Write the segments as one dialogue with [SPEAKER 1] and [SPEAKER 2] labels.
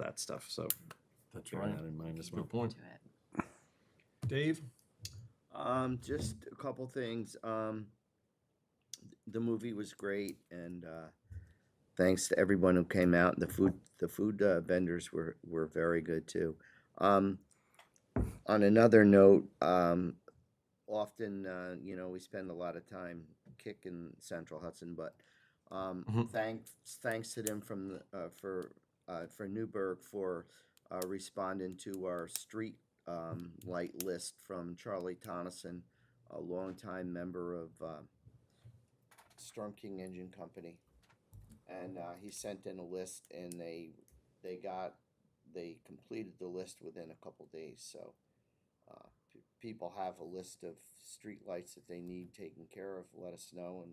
[SPEAKER 1] that stuff, so
[SPEAKER 2] That's
[SPEAKER 1] bear
[SPEAKER 2] right.
[SPEAKER 1] that in mind as well.
[SPEAKER 2] Good point.
[SPEAKER 3] to it.
[SPEAKER 2] Dave?
[SPEAKER 4] Um, just a couple things. Um, the movie was great, and uh, thanks to everyone who came out. The food, the food uh, vendors were were very good too. Um, on another note, um, often uh, you know we spend a lot of time kicking Central Hudson, but um,
[SPEAKER 2] Mhm.
[SPEAKER 4] thanks thanks to them from the, uh, for uh, for Newburgh for uh, responding to our street um, light list from Charlie Tonneson, a longtime member of uh, Storm King Engine Company, and uh, he sent in a list, and they they got they completed the list within a couple days. So uh, p- people have a list of street lights that they need taken care of. Let us know, and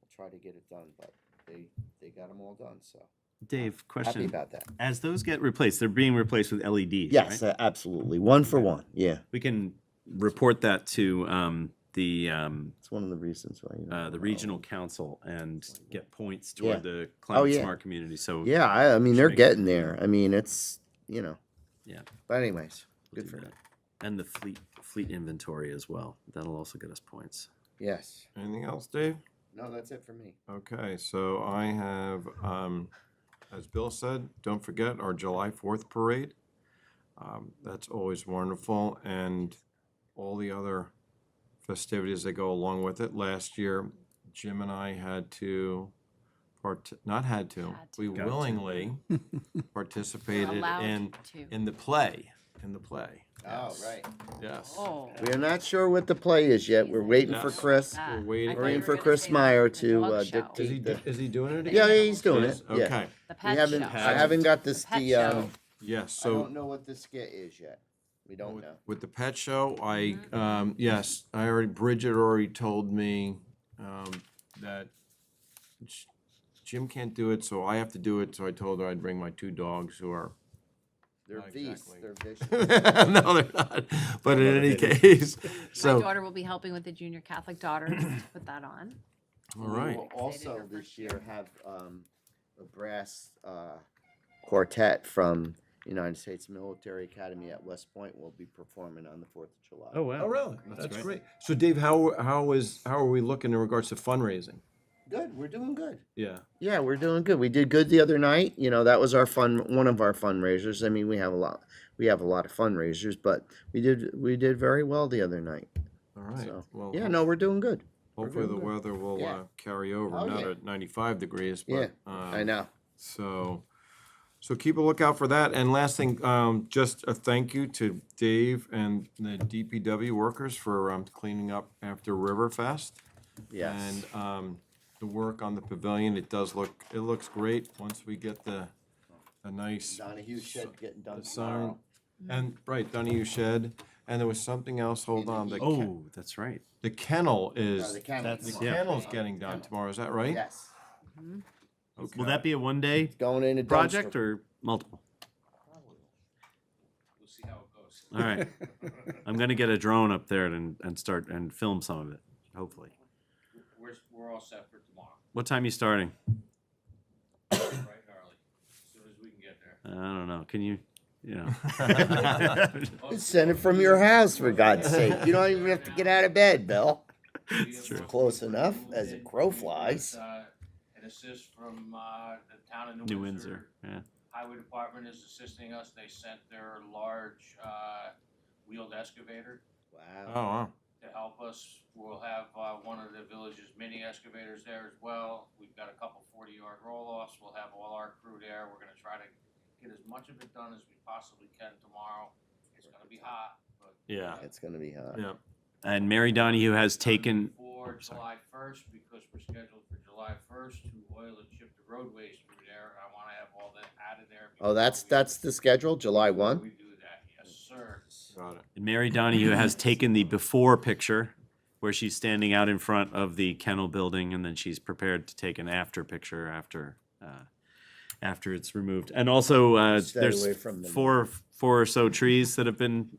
[SPEAKER 4] we'll try to get it done. But they they got them all done. So
[SPEAKER 5] Dave,
[SPEAKER 4] happy
[SPEAKER 5] question.
[SPEAKER 4] about that.
[SPEAKER 5] As those get replaced, they're being replaced with LEDs,
[SPEAKER 4] Yes,
[SPEAKER 5] right?
[SPEAKER 4] uh, absolutely. One for one. Yeah,
[SPEAKER 5] We can report that to um, the, um,
[SPEAKER 4] it's one of the reasons why. You
[SPEAKER 5] uh, the
[SPEAKER 4] know,
[SPEAKER 5] regional council and get points
[SPEAKER 4] Yeah. Oh,
[SPEAKER 5] toward the climate
[SPEAKER 4] yeah.
[SPEAKER 5] smart community. So
[SPEAKER 4] Yeah, I, I mean they're
[SPEAKER 5] Sure.
[SPEAKER 4] getting there. I mean it's you know.
[SPEAKER 5] Yeah.
[SPEAKER 4] But anyways,
[SPEAKER 5] we'll
[SPEAKER 4] good
[SPEAKER 5] do
[SPEAKER 4] for
[SPEAKER 5] that.
[SPEAKER 4] them.
[SPEAKER 5] And the fleet, fleet inventory as well. That'll also get us points.
[SPEAKER 4] Yes.
[SPEAKER 2] Anything else, Dave?
[SPEAKER 4] No, that's it for me.
[SPEAKER 2] Okay, so I have, um, as Bill said, don't forget our July Fourth parade. Um, that's always wonderful, and all the other festivities that go along with it. Last year, Jim and I had to, part, not had to,
[SPEAKER 3] Had to.
[SPEAKER 2] we
[SPEAKER 5] Got to.
[SPEAKER 2] willingly participated
[SPEAKER 3] Allowed
[SPEAKER 2] in,
[SPEAKER 3] to.
[SPEAKER 2] in the play, in the play,
[SPEAKER 4] Oh, right.
[SPEAKER 2] yes.
[SPEAKER 3] Oh.
[SPEAKER 4] We are not sure what the play is yet. We're waiting for
[SPEAKER 2] Yes.
[SPEAKER 4] Chris.
[SPEAKER 3] Ah, I thought
[SPEAKER 2] waiting-
[SPEAKER 3] you
[SPEAKER 2] We're in
[SPEAKER 3] were
[SPEAKER 2] for
[SPEAKER 3] gonna
[SPEAKER 4] Chris
[SPEAKER 3] say the-
[SPEAKER 4] Meyer
[SPEAKER 3] the
[SPEAKER 4] to,
[SPEAKER 3] dog
[SPEAKER 4] uh,
[SPEAKER 3] show,
[SPEAKER 2] Is
[SPEAKER 4] dictate-
[SPEAKER 2] he, do- is he doing it again?
[SPEAKER 4] Yeah, yeah, he's doing it.
[SPEAKER 2] Yes,
[SPEAKER 4] Yeah.
[SPEAKER 2] Okay,
[SPEAKER 3] The
[SPEAKER 4] We
[SPEAKER 3] pet
[SPEAKER 4] haven't,
[SPEAKER 3] show.
[SPEAKER 4] I haven't got this,
[SPEAKER 3] The pet
[SPEAKER 4] the, um,
[SPEAKER 2] yes,
[SPEAKER 4] I
[SPEAKER 2] so.
[SPEAKER 4] don't know what the skit is yet. We don't
[SPEAKER 2] With-
[SPEAKER 4] know.
[SPEAKER 2] With the pet show, I, um, yes, I already, Bridget already told me, um, that sh- Jim can't do it, so I have to do it, so I told her I'd bring my two dogs who are,
[SPEAKER 4] They're
[SPEAKER 2] Not
[SPEAKER 4] beasts,
[SPEAKER 2] exactly.
[SPEAKER 4] they're vicious.
[SPEAKER 2] no, they're not, but in any case,
[SPEAKER 3] My
[SPEAKER 2] so.
[SPEAKER 3] daughter will be helping with the junior Catholic daughter to put that on.
[SPEAKER 2] All right,
[SPEAKER 4] We will
[SPEAKER 3] Excited
[SPEAKER 4] also
[SPEAKER 3] her
[SPEAKER 4] this
[SPEAKER 3] first
[SPEAKER 4] year
[SPEAKER 3] year.
[SPEAKER 4] have, um, a brass, uh, quartet from United States Military Academy at West Point will be performing on the Fourth of July.
[SPEAKER 5] Oh, wow.
[SPEAKER 2] oh, really?
[SPEAKER 5] That's
[SPEAKER 2] That's
[SPEAKER 5] great.
[SPEAKER 2] great. So Dave, how, how is, how are we looking in regards to fundraising?
[SPEAKER 4] Good, we're doing good.
[SPEAKER 2] Yeah,
[SPEAKER 4] Yeah, we're doing good. We did good the other night. You know, that was our fun, one of our fundraisers. I mean, we have a lot, we have a lot of fundraisers, but we did, we did very well the other night.
[SPEAKER 2] all right,
[SPEAKER 4] So,
[SPEAKER 2] well,
[SPEAKER 4] Yeah, no, we're doing good.
[SPEAKER 2] hopefully the
[SPEAKER 4] doing good.
[SPEAKER 2] weather will,
[SPEAKER 4] Yeah.
[SPEAKER 2] uh, carry over,
[SPEAKER 4] Oh,
[SPEAKER 2] not
[SPEAKER 4] yeah.
[SPEAKER 2] at ninety-five degrees,
[SPEAKER 4] Yeah,
[SPEAKER 2] but.
[SPEAKER 4] I
[SPEAKER 2] um,
[SPEAKER 4] know.
[SPEAKER 2] So, so keep a lookout for that. And last thing, um, just a thank you to Dave and the DPW workers for, um, cleaning up after Riverfest.
[SPEAKER 4] Yes.
[SPEAKER 2] And, um, the work on the pavilion, it does look, it looks great once we get the, a nice
[SPEAKER 4] Donahue shed getting done
[SPEAKER 2] the sign.
[SPEAKER 4] tomorrow.
[SPEAKER 2] And, right, Donahue shed. And there was something else, hold on, the, ke-
[SPEAKER 5] Oh, that's right.
[SPEAKER 2] the kennel
[SPEAKER 4] No,
[SPEAKER 2] is,
[SPEAKER 4] the kennel
[SPEAKER 5] That's-
[SPEAKER 2] the
[SPEAKER 4] tomorrow.
[SPEAKER 5] yeah.
[SPEAKER 2] kennel's getting done tomorrow, is that right?
[SPEAKER 4] Yes,
[SPEAKER 5] Will that be a one-day
[SPEAKER 4] going in a dumpster.
[SPEAKER 5] project or multiple?
[SPEAKER 6] We'll see how it goes.
[SPEAKER 5] All right. I'm gonna get a drone up there and, and start and film some of it, hopefully.
[SPEAKER 6] We're, we're all set for tomorrow,
[SPEAKER 5] What time you starting?
[SPEAKER 6] right, Harley? As soon as we can get there.
[SPEAKER 5] Uh, I don't know. Can you, you know?
[SPEAKER 6] Oh,
[SPEAKER 4] You Send it from your house, for God's sake. You don't even have to get out of bed, Bill.
[SPEAKER 5] It's true.
[SPEAKER 4] Close enough as a crow flies.
[SPEAKER 6] Uh, An assist from, uh, the town of
[SPEAKER 5] New Windsor, yeah.
[SPEAKER 6] Highway Department is assisting us. They sent their large, uh, wheeled excavator
[SPEAKER 2] Oh,
[SPEAKER 4] Wow.
[SPEAKER 2] wow.
[SPEAKER 6] to help us. We'll have, uh, one of the village's mini excavators there as well. We've got a couple forty-yard roll-offs. We'll have all our crew there. We're gonna try to get as much of it done as we possibly can tomorrow. It's gonna be hot, but
[SPEAKER 2] Yeah,
[SPEAKER 4] It's gonna be uh, hot.
[SPEAKER 2] yeah.
[SPEAKER 5] And Mary Donahue has taken,
[SPEAKER 6] For
[SPEAKER 5] oh, sorry.
[SPEAKER 6] July first, because we're scheduled for July first to oil and chip the roadways through there, and I wanna have all that out of there.
[SPEAKER 4] Oh, that's,
[SPEAKER 6] before we-
[SPEAKER 4] that's the schedule, July
[SPEAKER 6] before
[SPEAKER 4] one?
[SPEAKER 6] We do that, yes, sir.
[SPEAKER 2] Got it.
[SPEAKER 5] Mary Donahue has taken the before picture where she's standing out in front of the kennel building and then she's prepared to take an after picture after, uh, after it's removed. And also, uh,
[SPEAKER 4] Stay away
[SPEAKER 5] there's
[SPEAKER 4] from them.
[SPEAKER 5] four, four or so trees that have been,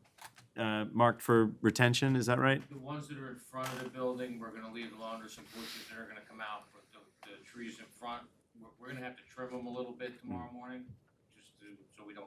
[SPEAKER 5] uh, marked for retention, is that right?
[SPEAKER 6] The ones that are in front of the building, we're gonna leave alone, there's some bushes that are gonna come out, but the, the trees in front, we're, we're gonna have to trim them a little bit tomorrow morning, just to, so we don't